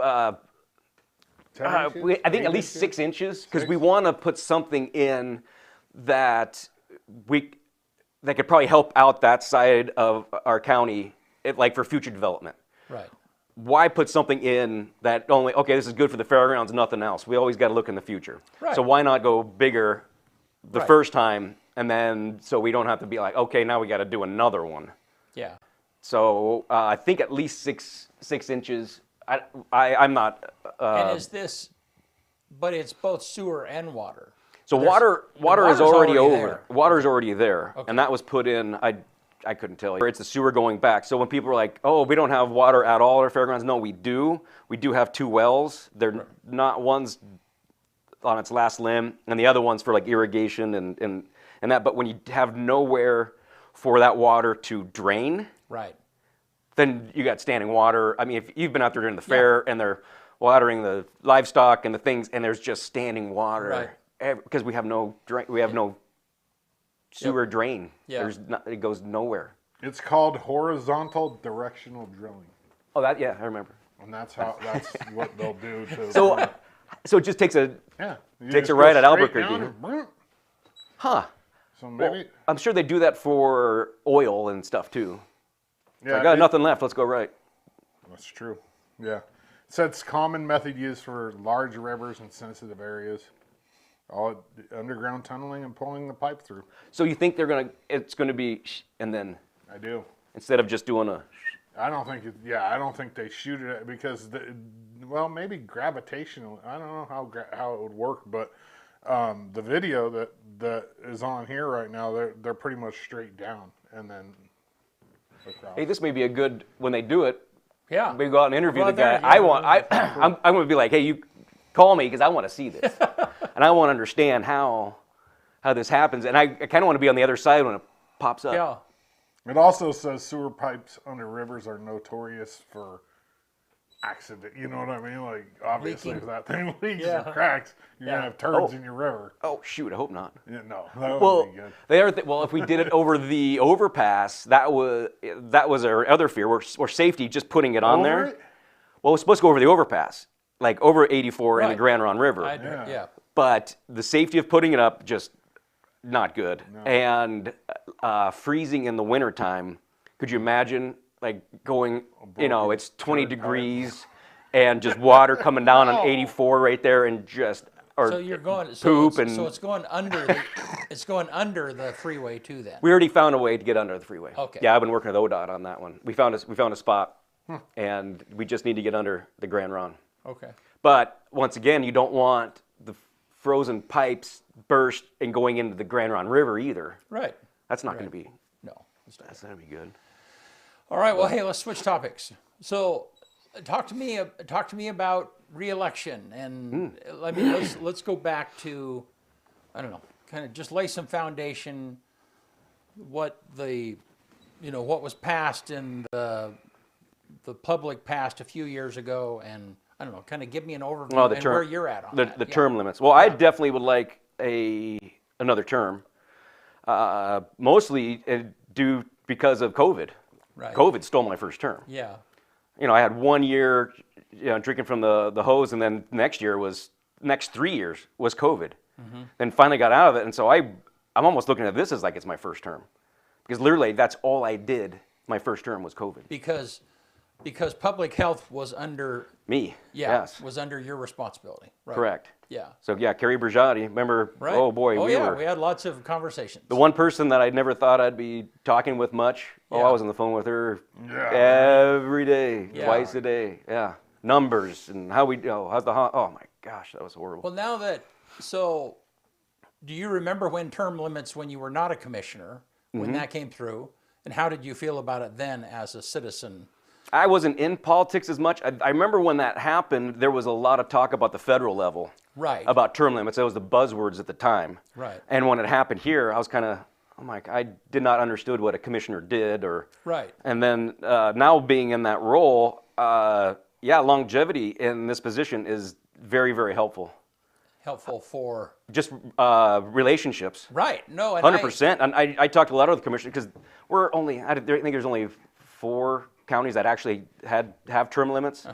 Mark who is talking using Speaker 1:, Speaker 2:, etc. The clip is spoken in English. Speaker 1: uh,
Speaker 2: Ten
Speaker 1: uh,
Speaker 2: inches?
Speaker 1: we, I think
Speaker 2: Eight
Speaker 1: at least
Speaker 2: inches?
Speaker 1: six inches because we want to put something in that we that could probably help out that side of our county, it, like for future development.
Speaker 3: Right.
Speaker 1: Why put something in that only okay? This is good for the fairgrounds, nothing else. We always got to look in the future.
Speaker 3: Right.
Speaker 1: So why not go bigger the
Speaker 3: Right.
Speaker 1: first time, and then so we don't have to be like okay, now we got to do another one.
Speaker 3: Yeah.
Speaker 1: So uh, I think at least six six inches. I, I I'm not. Uh,
Speaker 3: and is this? But it's both sewer and water.
Speaker 1: so
Speaker 3: There's-
Speaker 1: water
Speaker 3: the
Speaker 1: water is
Speaker 3: water's
Speaker 1: already, over.
Speaker 3: there.
Speaker 1: Water is already there,
Speaker 3: Okay.
Speaker 1: and that was put in. I I couldn't tell you. It's the sewer going back. So when people are like, "Oh, we don't have water at all at our fairgrounds," no, we do. We do have two wells. They're not one's on its last limb, and the other one's for like irrigation and and and that. But when you have nowhere for that water to drain,
Speaker 3: Right.
Speaker 1: then you got standing water. I mean, if you've been out there during the fair and they're watering the livestock and the things, and there's just standing
Speaker 3: Right.
Speaker 1: water because we have no drain, we have no sewer drain.
Speaker 3: Yeah.
Speaker 1: There's not, it goes nowhere.
Speaker 2: It's called horizontal directional drilling,
Speaker 1: Oh, that yeah, I remember.
Speaker 2: and that's how that's what they'll do to.
Speaker 1: So, uh, so it just takes a
Speaker 2: yeah, you
Speaker 1: takes
Speaker 2: just
Speaker 1: a
Speaker 2: go
Speaker 1: right at
Speaker 2: straight
Speaker 1: Albuquerque,
Speaker 2: down
Speaker 1: huh?
Speaker 2: and boom.
Speaker 1: huh.
Speaker 2: So
Speaker 1: Well,
Speaker 2: maybe
Speaker 1: I'm sure they do that for oil and stuff too.
Speaker 2: yeah,
Speaker 1: I got
Speaker 2: it-
Speaker 1: nothing left. Let's go right.
Speaker 2: That's true. Yeah. It says common method used for large rivers and sensitive areas. All underground tunneling and pulling the pipe through.
Speaker 1: So you think they're gonna? It's gonna be sh- and then
Speaker 2: I do.
Speaker 1: instead of just doing a
Speaker 2: I don't think. It, yeah, I don't think they shoot it at- because the, well, maybe gravitational. I don't know how gra- how it would work, but um, the video that that is on here right now, they're they're pretty much straight down and then across.
Speaker 1: hey, this may be a good when they do it.
Speaker 3: Yeah.
Speaker 1: We go out and interview
Speaker 3: Well,
Speaker 1: the guy.
Speaker 3: there
Speaker 1: I
Speaker 3: you go.
Speaker 1: want. I, I'm, I'm going to be like, hey, you call me because I want to see this, and I want to understand how how this happens, and I, I kind of want to be on the other side when it pops up.
Speaker 3: Yeah.
Speaker 2: It also says sewer pipes under rivers are notorious for accident. You know what I mean? Like obviously,
Speaker 3: Leaking.
Speaker 2: if that thing leaks
Speaker 3: Yeah.
Speaker 2: or cracks, you're
Speaker 3: Yeah.
Speaker 2: gonna have turds
Speaker 1: Oh.
Speaker 2: in your river.
Speaker 1: Oh shoot! I hope not.
Speaker 2: Yeah, no, that would
Speaker 1: Well,
Speaker 2: be good.
Speaker 1: the other thing, well, if we did it over the overpass, that was that was our other fear. We're, we're safety just putting it on
Speaker 2: Over
Speaker 1: there.
Speaker 2: it?
Speaker 1: Well, we're supposed to go over the overpass, like over 84 and the
Speaker 3: Right.
Speaker 1: Grand Ron River.
Speaker 3: I, yeah.
Speaker 2: Yeah.
Speaker 1: but the safety of putting it up just not good and uh, freezing in the wintertime could you imagine like going you know it's 20
Speaker 2: turd
Speaker 1: degrees and just water coming down on 84 right there and just or
Speaker 3: So you're going. So
Speaker 1: poop
Speaker 3: it's,
Speaker 1: and
Speaker 3: So it's going under. The, it's going under the freeway too. Then.
Speaker 1: we already found a way to get under the freeway
Speaker 3: Okay.
Speaker 1: yeah i've been working with odot on that one we found a, we found a spot and we just need to get under the grand ron
Speaker 3: Okay.
Speaker 1: But once again, you don't want the frozen pipes burst and going into the Grand Ron River either.
Speaker 3: Right.
Speaker 1: That's not going to be.
Speaker 3: No. it's not.
Speaker 1: That's not going to be good.
Speaker 3: All right. Well, hey, let's switch topics. So, uh, talk to me. uh, Talk to me about reelection, and uh,
Speaker 1: Hmm.
Speaker 3: let me let's let's go back to, I don't know, kind of just lay some foundation. What the, you know, what was passed in the, the public passed a few years ago, and I don't know, kind of give me an overview
Speaker 1: Well, the
Speaker 3: and
Speaker 1: term,
Speaker 3: where you're at on
Speaker 1: the,
Speaker 3: that.
Speaker 1: the
Speaker 3: Yeah.
Speaker 1: term limits. Well, I definitely would like a another term, uh, mostly uh, due because of COVID.
Speaker 3: Right.
Speaker 1: COVID stole my first term.
Speaker 3: Yeah.
Speaker 1: You know, I had one year, you know, drinking from the, the hose, and then next year was next three years was COVID.
Speaker 3: Mm-hmm.
Speaker 1: Then finally got out of it, and so I I'm almost looking at this as like it's my first term, because literally that's all I did. My first term was COVID.
Speaker 3: Because, because public health was under.
Speaker 1: Me.
Speaker 3: Yeah,
Speaker 1: Yes.
Speaker 3: was under your responsibility. Right.
Speaker 1: correct.
Speaker 3: Yeah.
Speaker 1: So yeah, Kerry Brigiotti. Remember?
Speaker 3: Right.
Speaker 1: Oh boy,
Speaker 3: Oh
Speaker 1: we
Speaker 3: yeah,
Speaker 1: were.
Speaker 3: we had lots of conversations.
Speaker 1: the one person that I never thought I'd be talking with much. Oh,
Speaker 3: Yeah.
Speaker 1: I was on the phone with her
Speaker 2: Yeah.
Speaker 1: every day,
Speaker 3: Yeah.
Speaker 1: twice a day. Yeah, numbers and how we. Oh, how's the? ho- Oh my gosh, that was horrible.
Speaker 3: Well, now that so, do you remember when term limits when you were not a commissioner when
Speaker 1: Mm-hmm.
Speaker 3: that came through, and how did you feel about it then as a citizen?
Speaker 1: I wasn't in politics as much. I, I remember when that happened, there was a lot of talk about the federal level.
Speaker 3: Right.
Speaker 1: About term limits. That was the buzzwords at the time.
Speaker 3: Right.
Speaker 1: And when it happened here, I was kind of, I'm like, I did not understood what a commissioner did or.
Speaker 3: Right.
Speaker 1: And then uh, now being in that role, uh, yeah, longevity in this position is very, very helpful.
Speaker 3: Helpful for
Speaker 1: Just uh, relationships.
Speaker 3: right? No, and I-
Speaker 1: Hundred percent. And I, I talked to a lot of the commissioners because we're only I don't- I think there's only four counties that actually had have term limits.